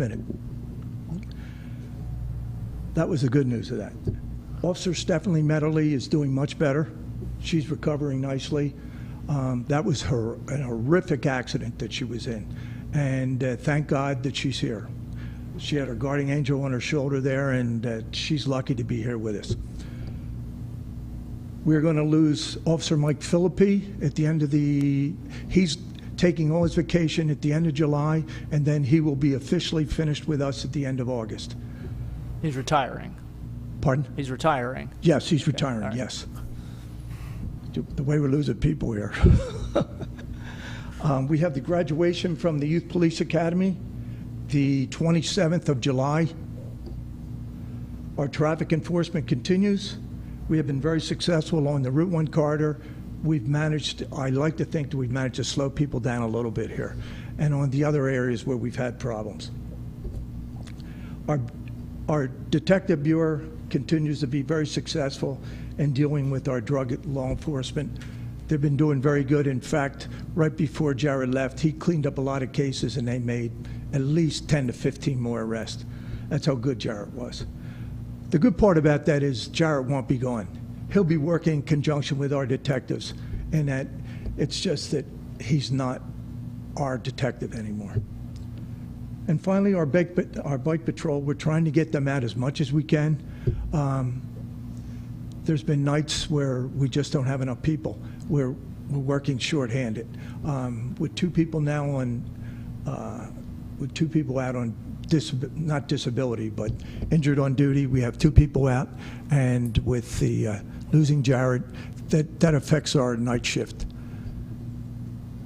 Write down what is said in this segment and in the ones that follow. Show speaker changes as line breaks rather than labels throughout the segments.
minute. That was the good news of that. Officer Stephanie Medley is doing much better. She's recovering nicely. Um, that was her an horrific accident that she was in, and uh, thank God that she's here. She had her guardian angel on her shoulder there, and uh, she's lucky to be here with us. We're going to lose Officer Mike Philippi at the end of the, he's taking all his vacation at the end of July, and then he will be officially finished with us at the end of August.
He's retiring.
Pardon?
He's retiring.
Yes, he's retiring,
right.
yes. The way we're losing people here. Um, We have the graduation from the Youth Police Academy, the 27th of July. Our traffic enforcement continues. We have been very successful along the Route 1 corridor. We've managed, I like to think that we've managed to slow people down a little bit here, and on the other areas where we've had problems. Our, our Detective Bureau continues to be very successful in dealing with our drug law enforcement. They've been doing very good. In fact, right before Jared left, he cleaned up a lot of cases and they made at least 10 to 15 more arrests. That's how good Jared was. The good part about that is Jarrett won't be gone. He'll be working in conjunction with our detectives, and that it's just that he's not our detective anymore. And finally, our bike, pat- our bike patrol, we're trying to get them out as much as we can. Um, There's been nights where we just don't have enough people. We're, we're working shorthanded. Um, With two people now on, uh, with two people out on disab, not disability, but injured on duty, we have two people out. And with the, uh, losing Jared, that, that affects our night shift.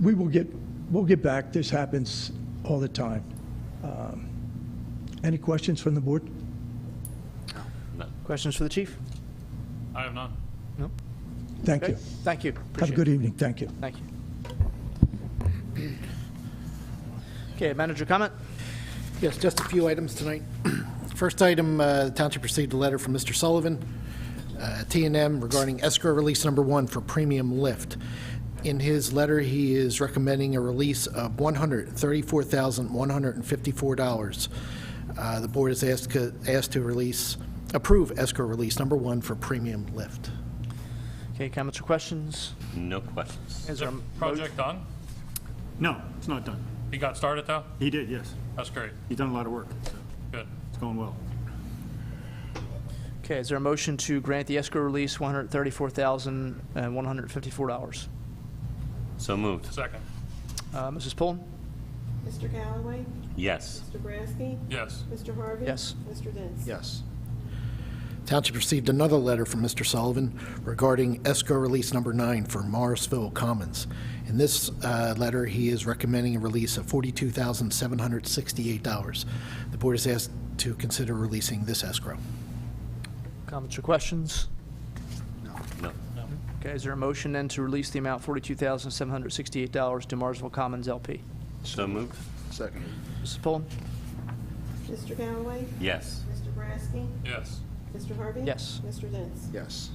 We will get, we'll get back. This happens all the time. Any questions from the board?
Questions for the chief?
I have none.
Thank you.
Thank you.
Have a
Appreciate
good
it.
evening. Thank you.
Thank you. Okay, manager comment?
Yes, just a few items tonight. First item, uh, the township received a letter from Mr. Sullivan, uh, t and M regarding escrow release number one for premium lift. In his letter, he is recommending a release of $134,154. Uh, The board is asked asked to release, approve escrow release number one for premium lift.
Okay, comments or questions?
No questions.
Is
Is the
there a mo-
project done?
No, it's not done.
He got started though?
He did, yes.
That's great.
He's done a lot of work. so
Good.
It's going well.
Okay, is there a motion to grant the escrow release uh, $134,154?
So moved.
Second.
Uh, Mrs. Pullen?
Mr. Calloway?
Yes.
Mr. Brasky?
Yes.
Mr. Harvey?
Yes.
Mr. Dents?
Yes. Township received another letter from Mr. Sullivan regarding escrow release number nine for Morrisville Commons. In this uh, letter, he is recommending a release of $42,768. The board is asked to consider releasing this escrow.
Comments or questions?
No.
Okay, is there a motion then to release the amount $42,768 to Marsville Commons LP?
So moved.
Mrs. Pullen?
Mr. Calloway?
Yes.
Mr. Brasky?
Yes.
Mr. Harvey?
Yes.
Mr. Dents?
Yes.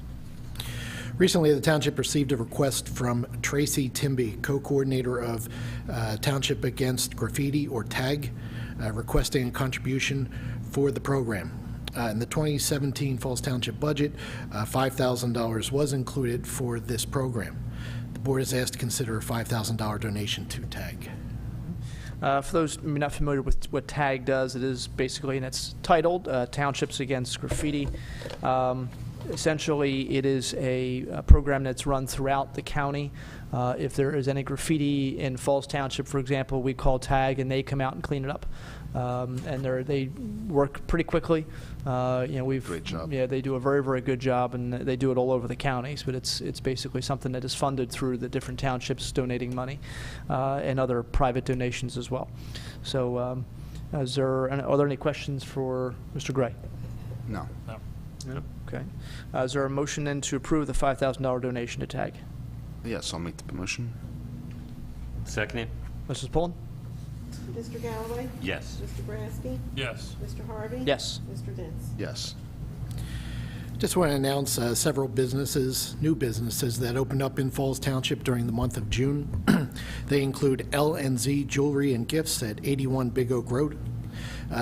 Recently, the township received a request from Tracy Timby, co-coordinator of uh, Township Against Graffiti, or TAG, uh, requesting a contribution for the program. Uh, In the 2017 Falls Township budget, uh, $5,000 was included for this program. The board is asked to consider a $5,000 donation to TAG.
Uh, For those maybe not familiar with what TAG does, it is basically, and it's titled uh, Townships Against Graffiti. Um, Essentially, it is a a program that's run throughout the county. Uh, If there is any graffiti in Falls Township, for example, we call TAG and they come out and clean it up. Um, And they're, they work pretty quickly. Uh, You know, we've. Great job. Yeah, they do a very, very good job and they do it all over the counties, but it's, it's basically something that is funded through the different townships donating money uh, and other private donations as well. So um, is there, are there any questions for Mr. Gray?
No.
No. Okay. Uh, Is there a motion then to approve the $5,000 donation to TAG?
Yes, I'll make the motion.
Seconded.
Mrs. Pullen?
Mr. Calloway?
Yes.
Mr. Brasky?
Yes.
Mr. Harvey?
Yes.
Mr. Dents?
Yes.
Just want to announce uh, several businesses, new businesses, that opened up in Falls Township during the month of June. They include L and Z Jewelry and Gifts at 81 Big Oak Road, Uh,